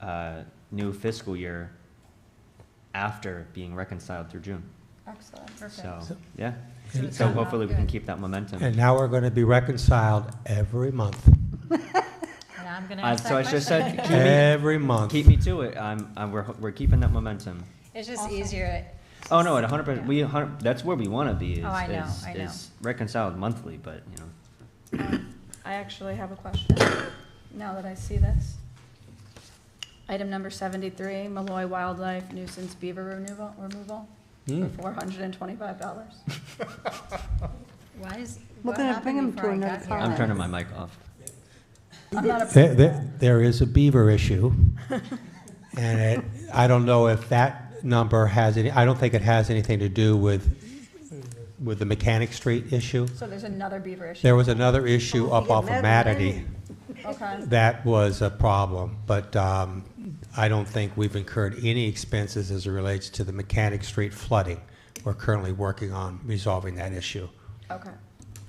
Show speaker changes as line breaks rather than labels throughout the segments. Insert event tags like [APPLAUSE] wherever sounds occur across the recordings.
uh, new fiscal year after being reconciled through June.
Excellent.
So,
So-
yeah.
So it's
So
not
hopefully we can
good.
keep that momentum.
And now we're going to be reconciled every month,
And I'm gonna
Uh,
ask that
So I just
question.
said, keep me,
every month.
keep me to it. I'm, I'm, we're, we're keeping that momentum.
It's just
Awesome.
easier.
Oh, no, at hundred percent,
Yeah.
we, a hundred, that's where we wanna be is,
Oh, I know,
is,
I know.
is reconciled monthly, but, you know.
I actually have a question, now that I see this. Item number seventy-three, Malloy Wildlife nuisance beaver removal, removal,
Hmm.
four hundred and twenty-five
[LAUGHS]
dollars.
Why is,
Well,
what
then bring
happened
'em to
before I
another
got here?
I'm
Alright.
turning my mic off.
I'm not
There,
a,
there, there is a beaver issue. [LAUGHS] And it, I don't know if that number has any, I don't think it has anything to do with, with the Mechanic Street issue.
[LAUGHS] so there's another beaver issue,
There was another
Oh,
issue up off of Matity
okay,
that was a problem, but, um, I don't think we've incurred any expenses as it relates to the Mechanic Street flooding. We're currently working on resolving that issue.
okay.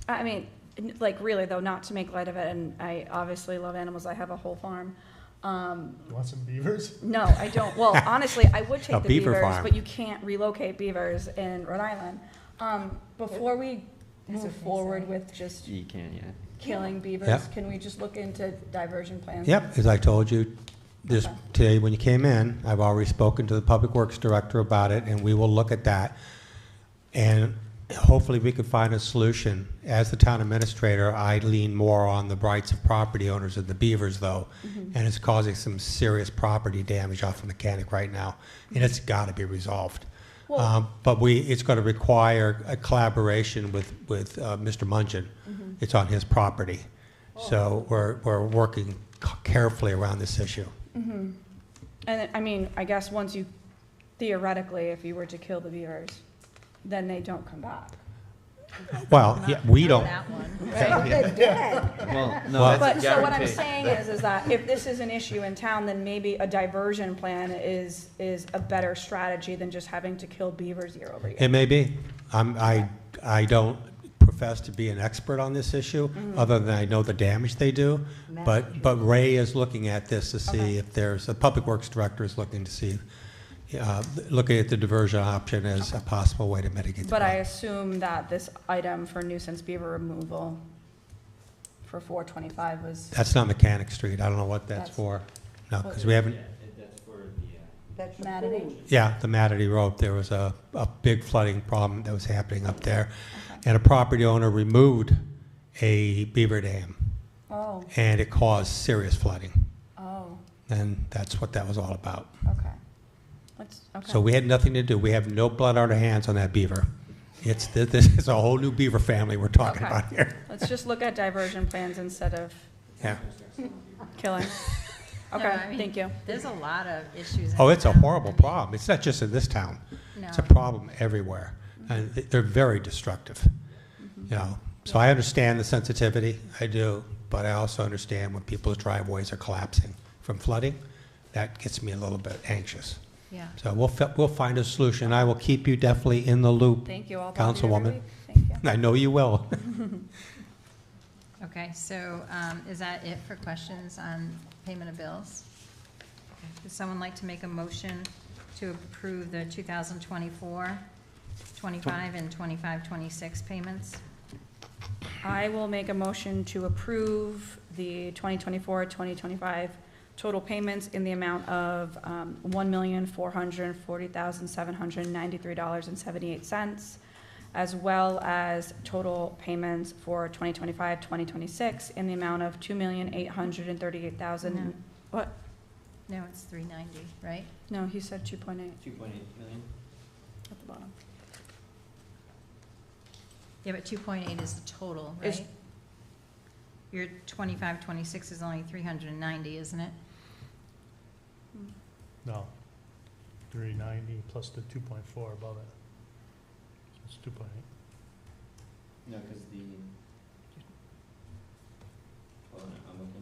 I mean, n- like, really though, not to make light of it, and I obviously love animals, I have a whole farm. Um,
You want some beavers?
No, I don't.
[LAUGHS]
Well, honestly, I would
A
take the
beaver
beavers,
farm.
but you can't relocate beavers in Rhode Island. Um, before we move
That's what they
forward
say.
with just
You can't, yeah.
killing beavers,
Yep.
can we just look into diversion plans?
Yep, as I told you this,
Okay.
today when you came in, I've already spoken to the Public Works Director about it, and we will look at that. And hopefully, we can find a solution. As the town administrator, I lean more on the rights of property owners than the beavers, though, Mm-hmm. and it's causing some serious property damage off the mechanic right now, and it's
Mm-hmm.
got to be resolved.
Well-
Um, But we, it's going to require a collaboration with, with uh, Mr. Mungian.
Mm-hmm.
It's on his property.
Oh.
So we're, we're working c- carefully around this issue.
And I mean, I guess once you, theoretically, if you were to kill the beavers, then they don't come back.
Well, yeah, we
Not
don't,
That one.
[LAUGHS]
Right?
They're dead.
Well,
Well-
no,
But,
that's
so what I'm
guaranteed.
saying is, is that if this is an issue in town, then maybe a diversion plan is, is a better strategy than just having to kill beavers year over year.
it may be. I'm, I, I don't profess to be an expert on this issue,
Mm-hmm.
other than I know the damage they do. But, but Ray is looking at this to see
Okay.
if there's, the Public Works Director is looking to see, uh, looking at the diversion option as a possible way to mitigate the
But I
problem.
assume that this item for nuisance beaver removal for four twenty-five was,
That's not Mechanic Street. I don't know what that's
That's-
for. No, because we haven't,
That's the
Matity.
food.
Yeah, the Matity Road, there was a, a big flooding problem that was happening up there. And a property owner removed a beaver dam,
oh,
and it caused serious flooding.
oh,
And that's what that was all about.
okay. Let's, okay,
So we had nothing to do, we have no blood on our hands on that beaver. It's, th- this is a whole new beaver family we're talking
Okay.
about here.
let's just look at diversion plans instead of
Yeah.
killing.
[LAUGHS]
No,
Okay,
I mean,
thank you.
There's a lot of issues. in
Oh, it's a
town.
horrible
I mean,
problem. It's not just in this town.
No.
It's a problem everywhere, and th- they're very destructive, you know. So I understand the sensitivity, I do, but I also understand when people's driveways are collapsing from flooding, that gets me a little bit anxious.
Yeah.
So we'll, fi- we'll find a solution, I will keep you definitely in the loop.
Thank you all.
Councilwoman.
Thank you.
I know you will.
Okay, so um, is that it for questions on payment of bills? Okay. Would someone like to make a motion to approve the 2024, 25, and 25, 26 payments?
I will make a motion to approve the 2024, 2025 total payments in the amount of um, $1,440,793.78, as well as total payments for 2025, 2026 in the amount of $2,838,000.
No.
What?
No, it's 390, right?
No, he said 2.8
Two point eight million?
at the bottom.
Yeah, but 2.8 is the total,
It's-
right? Your 25, 26 is only 390, isn't it?
No. Three ninety plus the two point four above it. So It's two point eight.
No, cause the. Hold on, I'm looking.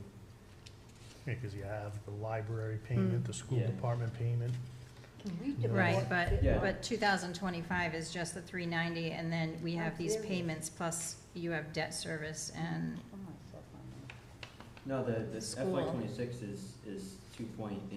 Yeah, cause you have the library payment, the school
Yeah.
department payment.
Can we do
Right,
more?
but,
Yeah.
but 2025 is just the 390, and then we have these payments, plus you have debt service and
Oh, my God.
No, the, the FY
School.
twenty-six is, is two point eight